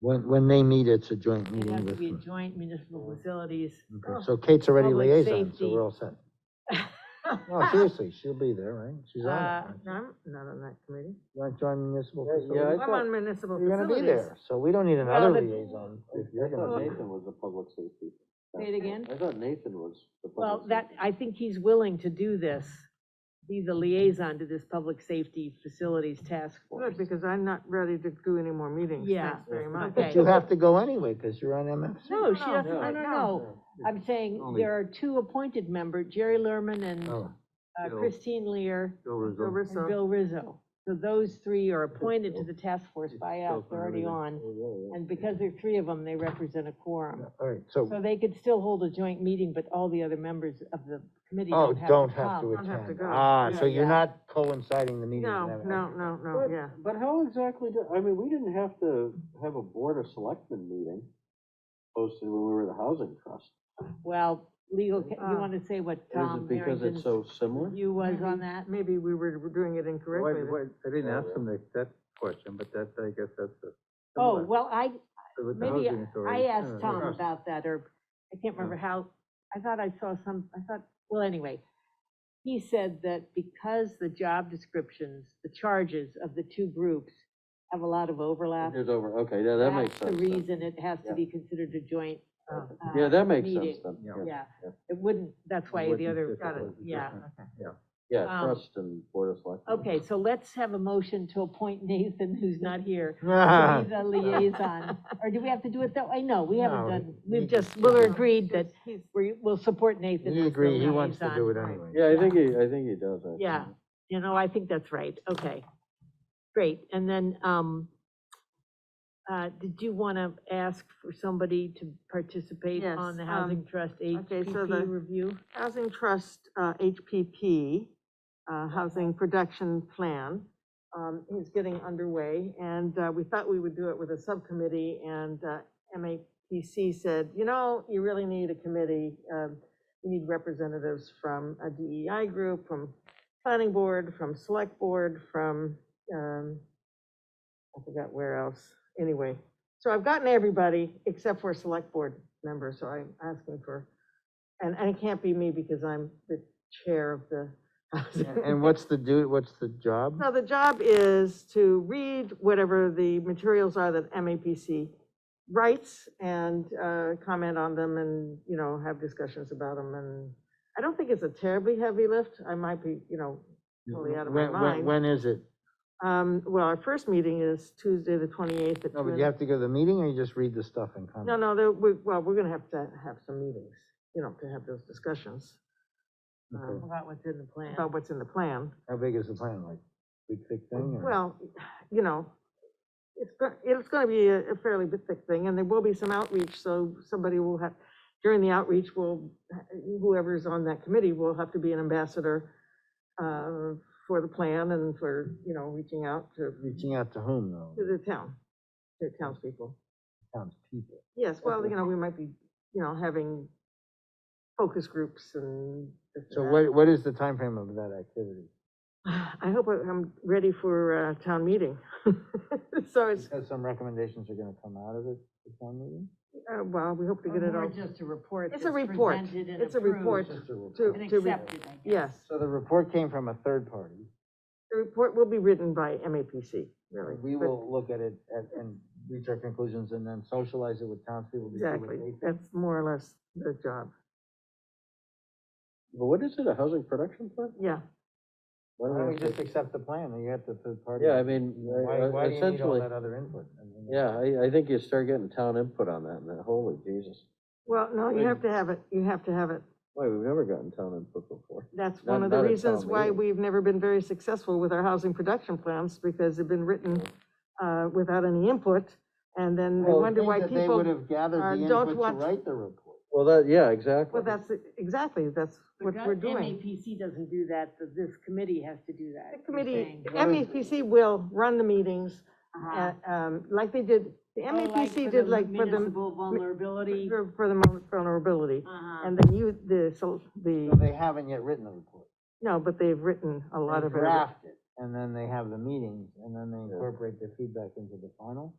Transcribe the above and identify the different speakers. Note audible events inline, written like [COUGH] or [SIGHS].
Speaker 1: When, when they meet, it's a joint
Speaker 2: It'd
Speaker 1: meeting
Speaker 2: have to
Speaker 1: with.
Speaker 2: be a
Speaker 1: me.
Speaker 2: joint municipal facilities. Oh.
Speaker 1: Okay,
Speaker 2: [LAUGHS]
Speaker 1: So Kate's already
Speaker 2: Public
Speaker 1: liaison, so
Speaker 2: safety. Ah,
Speaker 1: we're all set. No, Oh, seriously, she'll be there, right? She's on
Speaker 2: Uh,
Speaker 1: it.
Speaker 3: No, I'm not on that committee.
Speaker 1: You want to join municipal
Speaker 4: Yeah, yeah,
Speaker 1: facilities?
Speaker 4: I
Speaker 3: I'm
Speaker 4: thought-
Speaker 3: on municipal
Speaker 1: You're gonna
Speaker 3: facilities.
Speaker 1: be there, so we don't need
Speaker 2: Well,
Speaker 1: another
Speaker 2: the-
Speaker 1: liaison if you're
Speaker 4: I thought
Speaker 1: gonna be.
Speaker 4: Nathan was the public safety.
Speaker 2: Say it again?
Speaker 4: I thought Nathan was the
Speaker 2: Well,
Speaker 4: public
Speaker 2: that,
Speaker 4: safety.
Speaker 2: I think he's willing to do this, be the liaison to this public safety facilities task force.
Speaker 3: Good, because I'm not ready to do any more meetings,
Speaker 2: Yeah.
Speaker 3: thanks very much.
Speaker 2: Okay.
Speaker 1: But you have to go anyway, because you're on MFC.
Speaker 2: No, she doesn't,
Speaker 4: no,
Speaker 2: no, no,
Speaker 3: no.
Speaker 2: no. I'm saying
Speaker 4: Only-
Speaker 2: there are two appointed members, Jerry Lerman and
Speaker 1: Oh,
Speaker 2: uh,
Speaker 4: Bill.
Speaker 2: Christine Lear
Speaker 4: Bill
Speaker 3: Go
Speaker 4: Rizzo.
Speaker 2: and
Speaker 3: Rizzo.
Speaker 2: Bill Rizzo. So those three are appointed to the task force
Speaker 4: It's
Speaker 2: by
Speaker 4: Bill
Speaker 2: us, they're already
Speaker 4: Rizzo.
Speaker 2: on.
Speaker 4: Yeah, yeah.
Speaker 2: And because there are three of them, they represent a quorum.
Speaker 1: all right, so,
Speaker 2: So they could still hold a joint meeting, but all the other members of the committee
Speaker 1: oh,
Speaker 2: don't have to
Speaker 1: don't have to
Speaker 2: come.
Speaker 3: Don't have to
Speaker 1: attend.
Speaker 3: go.
Speaker 1: Ah,
Speaker 3: Yeah,
Speaker 1: so you're
Speaker 2: yeah.
Speaker 1: not coinciding the meetings.
Speaker 3: No,
Speaker 1: and
Speaker 3: no,
Speaker 1: everything.
Speaker 3: no, no,
Speaker 4: But-
Speaker 3: yeah.
Speaker 4: But how exactly, do- I mean, we didn't have to have a board of selectmen meeting posted when we were the housing trust.
Speaker 2: Well, legal, ca- you
Speaker 3: Uh,
Speaker 2: want to say what
Speaker 4: Is
Speaker 2: Tom
Speaker 4: it because
Speaker 2: Harrington's
Speaker 4: it's so similar?
Speaker 2: view was on
Speaker 3: Maybe-
Speaker 2: that?
Speaker 3: Maybe we were doing it
Speaker 5: Why-
Speaker 3: incorrectly. then.
Speaker 5: why- I didn't
Speaker 4: Oh,
Speaker 5: ask
Speaker 4: yeah.
Speaker 5: them that, that question, but that, I guess that's the.
Speaker 2: Oh,
Speaker 5: similar
Speaker 2: well, I,
Speaker 5: with the
Speaker 2: maybe
Speaker 5: housing
Speaker 2: I
Speaker 5: authority. Oh,
Speaker 2: asked Tom
Speaker 5: Yeah.
Speaker 2: about that, or I can't remember how, I thought I saw some, I thought, well, anyway. He said that because the job descriptions, the charges of the two groups have a lot of overlap.
Speaker 4: It's over, okay, yeah, that makes sense.
Speaker 2: That's the
Speaker 4: then.
Speaker 2: reason it has to
Speaker 4: Yeah.
Speaker 2: be considered a joint,
Speaker 3: Oh,
Speaker 4: Yeah,
Speaker 2: uh,
Speaker 4: that makes sense
Speaker 2: meeting.
Speaker 4: then.
Speaker 5: Yeah.
Speaker 2: yeah.
Speaker 4: Yeah.
Speaker 2: It wouldn't, that's why the
Speaker 5: Wouldn't
Speaker 2: other,
Speaker 5: fit,
Speaker 2: got it,
Speaker 5: wouldn't fit.
Speaker 2: yeah.
Speaker 4: Yeah,
Speaker 2: Um,
Speaker 4: trust and board of selectmen.
Speaker 2: Okay, so let's have a motion to appoint Nathan, who's not here,
Speaker 1: [LAUGHS]
Speaker 2: to
Speaker 1: Ah,
Speaker 2: be the liaison, or do we have to do it that way? No, we haven't
Speaker 1: No,
Speaker 2: done,
Speaker 1: we
Speaker 2: we've just,
Speaker 1: just-
Speaker 2: Willer
Speaker 1: We're
Speaker 2: agreed that
Speaker 3: He's-
Speaker 2: we, we'll support Nathan
Speaker 1: He
Speaker 2: as the
Speaker 1: agreed, he wants to
Speaker 2: liaison.
Speaker 1: do it anyway.
Speaker 4: Yeah, I think he, I think he does. actually.
Speaker 2: Yeah, you know, I think that's right, okay. Great, and then, um, uh, did you want to ask for somebody to participate
Speaker 3: Yes,
Speaker 2: on the
Speaker 3: um,
Speaker 2: Housing Trust
Speaker 3: okay, so the-
Speaker 2: HPP review?
Speaker 3: Housing Trust, uh, HPP, uh, Housing Production Plan, um, is getting underway, and, uh, we thought we would do it with a subcommittee, and, uh, MAPC said, you know, you really need a committee, um, you need representatives from a DEI group, from planning board, from select board, from, um, I forgot where else, anyway. So I've gotten everybody except for select board members, so I'm asking for, and, and it can't be me because I'm the chair of the. [LAUGHS] housing.
Speaker 1: And what's the do, what's the job?
Speaker 3: So the job is to read whatever the materials are that MAPC writes and uh, comment on them and, you know, have discussions about them. And I don't think it's a terribly heavy lift. I might be, you know, totally out of my
Speaker 1: When- when-
Speaker 3: mind.
Speaker 1: When is it?
Speaker 3: um, well, our first meeting is Tuesday, the 28th. at
Speaker 1: No,
Speaker 3: two
Speaker 1: but
Speaker 3: in-
Speaker 1: you have to go to the meeting or you just read the stuff and comment?
Speaker 3: No, no, there- we, well, we're going to have to have some meetings, you know, to have those discussions
Speaker 1: Okay.
Speaker 3: um,
Speaker 2: About what's in the plan.
Speaker 3: about what's in the plan.
Speaker 1: How big is the plan, like, big thick thing or?
Speaker 3: Well, you know, it's, go- it's gonna be a a fairly big thick thing, and there will be some outreach, so somebody will have, during the outreach, will, whoever's on that committee will have to be an ambassador uh, for the plan and for, you know, reaching out to,
Speaker 1: Reaching out to whom though?
Speaker 3: to the town, to townspeople.
Speaker 1: Townspeople.
Speaker 3: Yes, well, you know, we might be, you know, having focus groups and. this and
Speaker 1: So
Speaker 3: that.
Speaker 1: what, what is the time frame of that activity?
Speaker 3: [SIGHS] I hope I'm ready for uh, town meeting. [LAUGHS] So it's,
Speaker 1: Because some recommendations are gonna come out of it, the town meeting?
Speaker 3: uh, well, we hope to get it all.
Speaker 2: Or just a report
Speaker 3: It's a
Speaker 2: that's
Speaker 3: report.
Speaker 2: presented and
Speaker 3: It's a report.
Speaker 2: approved
Speaker 1: Just a report.
Speaker 3: To-
Speaker 2: And
Speaker 3: to re-
Speaker 2: accepted, I guess.
Speaker 3: Yes,
Speaker 1: So the report came from a third party.
Speaker 3: the report will be written by MAPC, really.
Speaker 1: We
Speaker 3: but-
Speaker 1: will look at it and, and reach our conclusions and then socialize it with townspeople. to see what
Speaker 3: Exactly,
Speaker 1: they think.
Speaker 3: that's more or less the job,
Speaker 4: But what is it, a housing production plan?
Speaker 3: yeah.
Speaker 4: Why
Speaker 1: Why don't
Speaker 4: do
Speaker 1: we just accept the plan and you have the third party?
Speaker 4: Yeah, I mean, I-
Speaker 1: Why,
Speaker 4: I-
Speaker 1: why do you need all
Speaker 4: essentially,
Speaker 1: that other input? I mean,
Speaker 4: yeah, I, I think you start getting town input on that, and that, holy Jesus.
Speaker 3: Well, no, you have to have it, you have to have it.
Speaker 4: Wait, we've never gotten town input before.
Speaker 3: That's
Speaker 4: Not-
Speaker 3: one of the
Speaker 4: not at
Speaker 3: reasons
Speaker 4: town
Speaker 3: why
Speaker 4: meeting.
Speaker 3: we've never been very successful with our housing production plans, because they've been written uh, without any input, and then I
Speaker 1: Well,
Speaker 3: wonder
Speaker 1: think
Speaker 3: why
Speaker 1: that They would
Speaker 3: people,
Speaker 1: have gathered
Speaker 3: uh,
Speaker 1: the
Speaker 3: don't
Speaker 1: input to
Speaker 3: want-
Speaker 1: write the report.
Speaker 4: Well, that, yeah, exactly.
Speaker 3: well, that's, exactly, that's what
Speaker 2: Because
Speaker 3: we're doing.
Speaker 2: MAPC doesn't do that, so this committee has to do that.
Speaker 3: The
Speaker 2: you're
Speaker 3: committee,
Speaker 2: saying.
Speaker 3: MAPC will run the meetings,
Speaker 2: Uh-huh.
Speaker 3: uh, um, like they did, the
Speaker 2: Oh, like
Speaker 3: MAPC
Speaker 2: for
Speaker 3: did
Speaker 2: the
Speaker 3: like for the
Speaker 2: Municipal vulnerability.
Speaker 3: For for the mo- vulnerability,
Speaker 2: Uh-huh.
Speaker 3: and then you, the, so,
Speaker 1: So
Speaker 3: the,
Speaker 1: they haven't yet written the report.
Speaker 3: no, but they've written a lot
Speaker 1: They
Speaker 3: of it.
Speaker 1: Draft it, and then they have the meetings, and then they
Speaker 4: Yeah.
Speaker 1: incorporate their feedback into the final.